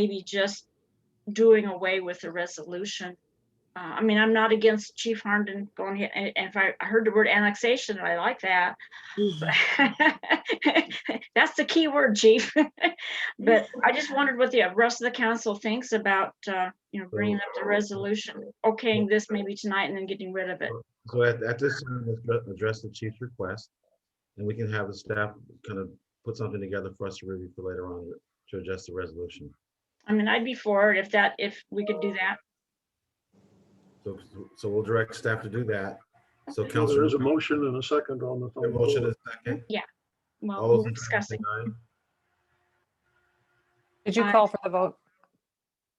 maybe just doing away with the resolution. Uh, I mean, I'm not against Chief Harnden going here, and and if I I heard the word annexation, I like that. That's the key word, chief. But I just wondered what the rest of the council thinks about, uh, you know, bringing up the resolution, okaying this maybe tonight and then getting rid of it. So at, at this time, let's go- address the chief's request, and we can have the staff kind of put something together for us to review for later on to adjust the resolution. I mean, I'd be for it if that, if we could do that. So, so we'll direct staff to do that. So Well, There Counselor, is a motion and a second on the. your phone. motion is second. Well, All those we're in favor say discussing. aye. Did you Aye. call for the vote?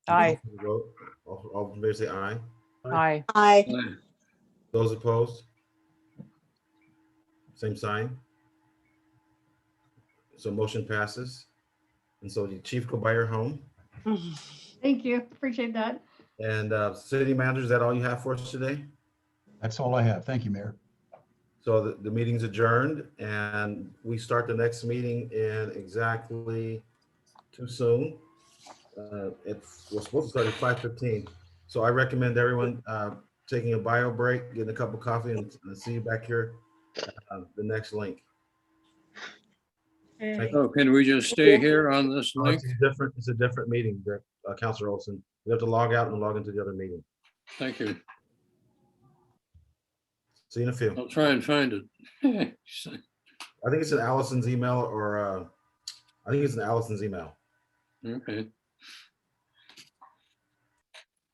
Aye, Vote. All, all in favor say aye. aye. Aye. Those opposed? Same sign? So motion passes. And so the chief go by your home. Thank you, appreciate that. And uh, city manager, is that all you have for us today? That's all I have. Thank you, Mayor. So the, the meeting's adjourned and we start the next meeting in exactly too soon. Uh, It's, we're supposed to start at five fifteen. So I recommend everyone uh, taking a bio break, getting a cup of coffee and and see you back here. uh, The next link. Okay. Thank you. Oh, can we just stay here on this No, link? It's a different, it's a different meeting, Dirk- uh, Counselor Olson. You have to log out and log into the other meeting. Thank you. See you in a few. I'll try and find it. I think it's in Allison's email or, uh, I think it's in Allison's email. Okay.